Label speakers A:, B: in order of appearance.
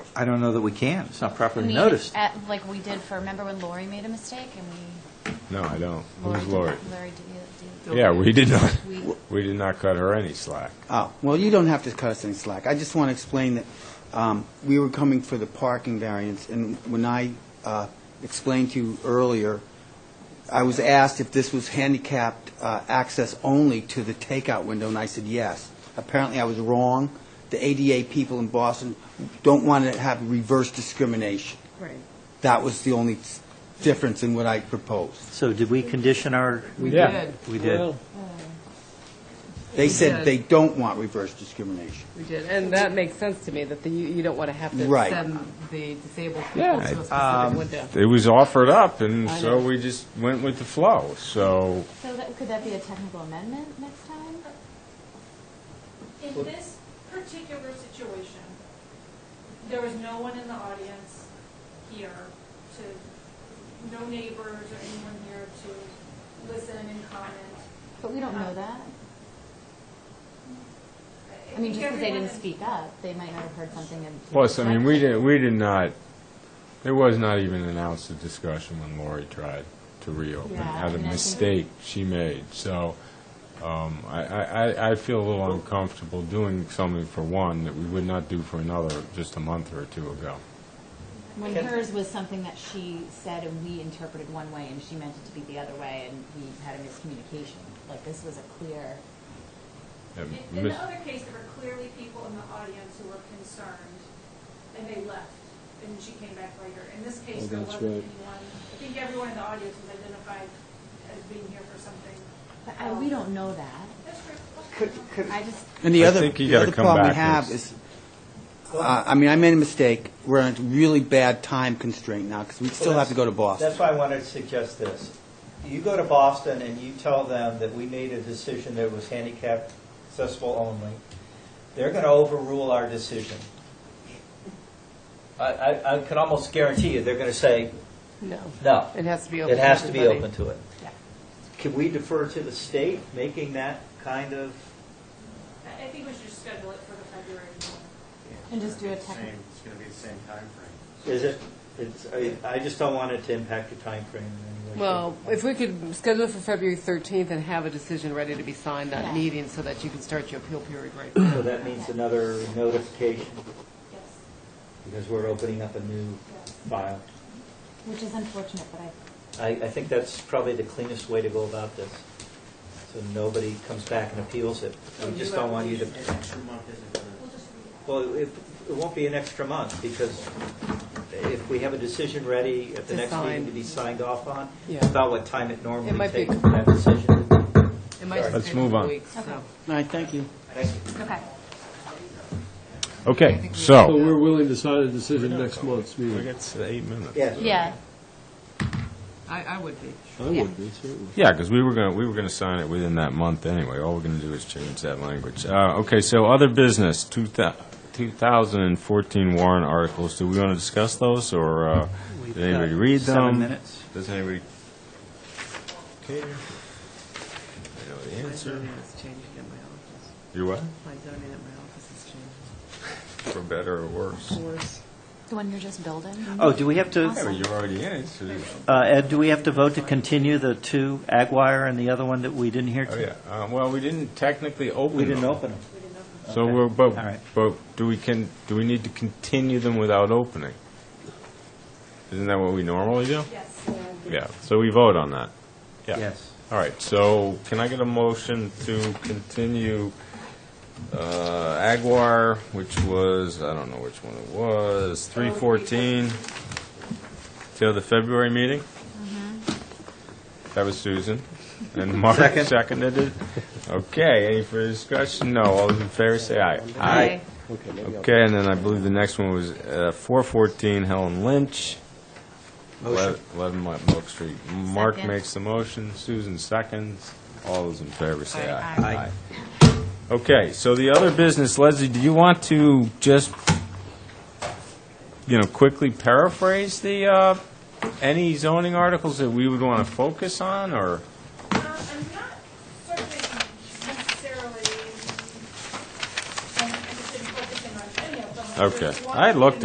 A: I don't know that we can. It's not
B: I
A: properly
B: mean,
A: noticed.
B: at- Like we did for, remember when Lori made a mistake and we,
C: No, I don't.
B: Lori
C: Who's
B: did
C: Lori?
B: not, Lori did- did.
C: Yeah, we did not,
B: We-
C: we did not cut her any slack.
D: Oh, well, you don't have to cut us any slack. I just want to explain that um, we were coming for the parking variance, and when I uh, explained to you earlier, I was asked if this was handicapped uh, access only to the takeout window, and I said yes. Apparently, I was wrong. The ADA people in Boston don't want to have reverse discrimination.
E: Right.
D: That was the only s- difference in what I proposed.
A: So did we condition our?
E: We
C: Yeah.
E: did,
A: We did.
F: Well,
D: They
E: Yeah.
D: said they don't want reverse discrimination.
E: we did. And that makes sense to me, that the, you you don't want to have to
D: Right.
E: send the disabled
C: Yeah.
E: people to a
F: Um,
E: specific window.
C: It was offered up, and
E: I
C: so
E: know.
C: we just went with the flow, so,
B: So that, could that be a technical amendment next time?
G: In this particular situation, there was no one in the audience here to, no neighbors or anyone here to listen and comment.
B: But we don't know that. I mean, just because they
G: Everyone
B: didn't
G: in-
B: speak up, they might not have heard something. and-
C: plus, I mean, we did, we did not, there was not even an ounce of discussion when Lori tried to reopen,
B: Yeah,
C: at
B: I
C: a
B: mean, I think-
C: mistake she made, so, um, I, I, I- I feel a little uncomfortable doing something for one that we would not do for another just a month or two ago.
B: When hers was something that she said and we interpreted one way and she meant it to be the other way and we had a miscommunication. Like, this was a clear,
C: And
G: In- In
C: Miss-
G: the other case, there were clearly people in the audience who were concerned, and they left, and she came back later. In this case, there wasn't anyone, I think everyone in the audience was identified as being here for something.
B: but I, we don't know that.
G: That's true.
B: I just,
D: And the
C: I
D: other,
C: think you
D: the
C: gotta
D: other
C: come
D: problem we
C: back
D: have
C: next.
D: is, uh, I mean, I made a mistake. We're on a really bad time constraint now because we still have to go to Boston.
F: That's why I wanted to suggest this. You go to Boston and you tell them that we made a decision that was handicap accessible only. They're going to overrule our decision. I, I, I can almost guarantee you, they're going to say,
E: No,
F: no,
E: it has to be open
F: it
E: to
F: has to be
E: everybody.
F: open to it.
B: Yeah.
F: Can we defer to the state making that kind of,
G: I I think we should just schedule it for the February meeting.
B: and just do a
H: Same,
B: technical.
H: it's going to be the same timeframe.
F: is it, it's, I, I just don't want it to impact the timeframe in any way.
E: Well, if we could schedule it for February 13th and have a decision ready to be signed
B: Yeah.
E: that meeting so that you can start your appeal period right
F: So that means another notification,
G: Yes,
F: because we're opening up a new
G: yes.
F: file.
B: Which is unfortunate, but I,
F: I, I think that's probably the cleanest way to go about this, so nobody comes back and appeals it. We just don't want you to,
H: An extra month isn't going
G: We'll just read it.
F: well, it, it won't be an extra month, because if we have a decision ready at the
E: To
F: next meeting
E: sign.
F: to be signed off on,
E: Yeah.
F: about what time it normally
E: It might be-
F: takes for that decision.
E: It might just
C: Let's
E: take a
C: move
E: couple
C: on.
E: weeks,
B: Okay.
E: so.
D: All right, thank you.
B: okay.
C: Okay,
E: So
F: so.
C: so,
F: we're
E: we're
F: going
E: Yeah. will-
I: willing to sign a decision next month's
C: we
I: meeting.
C: got to eight minutes.
B: Yeah,
E: I, I would be.
I: I
B: Yeah.
I: would be, certainly.
C: Yeah, because we were going to, we were going to sign it within that month anyway. All we're going to do is change that language. Uh, Okay, so other business, two thou- 2014 warrant articles. Do we want to discuss those, or uh,
A: We've
C: did anybody
A: got
C: read them?
A: Seven minutes.
C: Does anybody care? I know the
E: My
C: answer.
E: zoning has changed in my office.
C: You what?
E: My zoning at my office has changed.
C: For better or worse?
B: the one you're just building?
A: Oh, do we have
C: Yeah, but
A: to,
C: you already answered.
A: uh, Ed, do we have to vote to continue the two Aguirre and the other one that we didn't hear?
C: Oh,
A: to-
C: yeah. Uh, Well, we didn't technically open
F: We didn't
C: them.
F: open them.
C: So,
A: Okay.
C: we're- but,
A: All right.
C: but do we can, do we need to continue them without opening? Isn't that what we normally do?
G: Yes. Uh,
C: Yeah, so we vote on that.
F: Yes.
C: All right, so can I get a motion to continue uh, Aguirre, which was, I don't know which one it was, 314, till the February meeting? That was Susan. And Mark seconded it. Okay, any further discussion? No, all those in favor say aye.
E: Aye.
I: Okay, maybe I'll-
C: Okay, and then I believe the next one was uh, 414 Helen Lynch.
D: Motion.
C: 11 Mo- Oak Street. Mark
B: Second.
C: makes the motion, Susan seconds. All those in favor say aye.
B: Aye.
C: Aye. Okay, so the other business, Leslie, do you want to just, you know, quickly paraphrase the, uh, any zoning articles that we would want to focus on, or?
G: Um, I'm not certain um, necessarily, I'm interested in focusing on any of them.
C: Okay.
G: There's one
C: I looked